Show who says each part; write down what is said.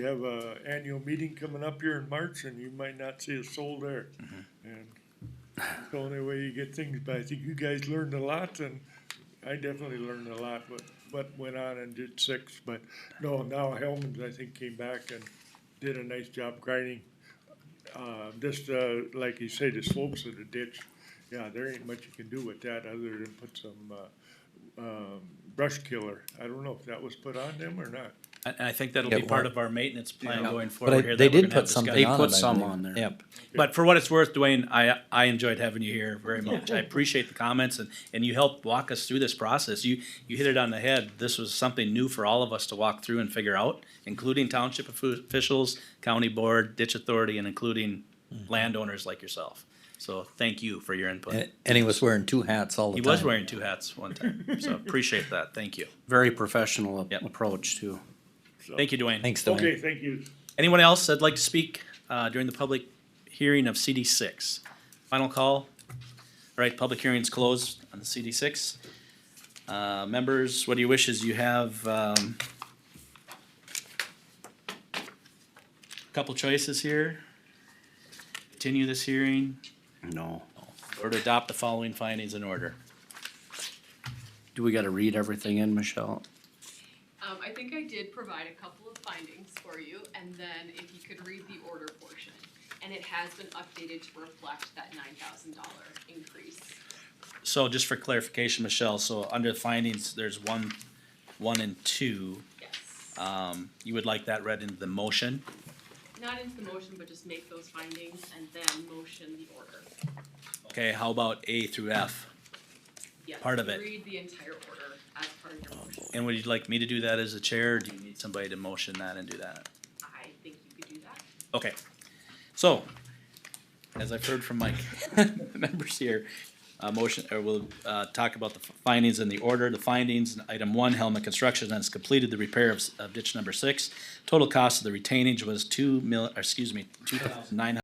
Speaker 1: We have a annual meeting coming up here in March and you might not see a soul there. And it's the only way you get things, but I think you guys learned a lot and I definitely learned a lot, but what went on and did six, but no, now Hellman's, I think, came back and did a nice job grinding. Uh, just, uh, like you say, the slopes of the ditch, yeah, there ain't much you can do with that other than put some, uh, um, brush killer. I don't know if that was put on them or not.
Speaker 2: And and I think that'll
Speaker 3: Yeah,
Speaker 2: be part
Speaker 3: well-
Speaker 2: of our maintenance plan going
Speaker 3: But
Speaker 2: forward
Speaker 3: I,
Speaker 2: here.
Speaker 3: they
Speaker 2: that we're
Speaker 3: did
Speaker 2: gonna have
Speaker 3: put something on
Speaker 2: discussion.
Speaker 4: They put
Speaker 3: it, I
Speaker 4: some
Speaker 3: believe.
Speaker 4: on there.
Speaker 3: Yep.
Speaker 2: But for what it's worth, Dwayne, I, I enjoyed having you here very much. I appreciate the comments and, and you helped walk us through this process. You, you hit it on the head. This was something new for all of us to walk through and figure out, including township offi- officials, county board, ditch authority, and including
Speaker 3: Mm.
Speaker 2: landowners like yourself. So thank you for your input.
Speaker 3: And, and he was wearing two hats all the
Speaker 2: He
Speaker 3: time.
Speaker 2: was wearing two hats one time, so appreciate that. Thank you.
Speaker 4: Very professional ap-
Speaker 2: Yep.
Speaker 4: approach too.
Speaker 1: so.
Speaker 2: Thank you, Dwayne.
Speaker 3: Thanks, Dwayne.
Speaker 1: Okay, thank you.
Speaker 2: Anyone else that'd like to speak uh, during the public hearing of CD six? Final call. All right, public hearing's closed on the CD six. Uh, Members, what do you wish? Is You have um, a couple choices here. Continue this hearing
Speaker 4: No.
Speaker 2: or to adopt the following findings in order.
Speaker 4: Do we gotta read everything in, Michelle?
Speaker 5: Um, I think I did provide a couple of findings for you, and then if you could read the order portion. And it has been updated to reflect that nine thousand dollar increase.
Speaker 2: So just for clarification, Michelle, so under findings, there's one, one and two.
Speaker 5: Yes.
Speaker 2: Um, You would like that read into the motion?
Speaker 5: Not into the motion, but just make those findings and then motion the order.
Speaker 2: Okay, how about A through F?
Speaker 5: Yes,
Speaker 2: Part of it.
Speaker 5: Read the entire order as part of your motion.
Speaker 2: And would you like me to do that as a chair, or do you need somebody to motion that and do that?
Speaker 5: I think you could do that.
Speaker 2: Okay, so, as I've heard from my members here, uh, motion, or we'll, uh, talk about the findings and the order, the findings, item one, Helmet Construction has completed the repair of, s- of ditch number six. Total cost of the retainage was two mil, or excuse me, two thousand nine hundred.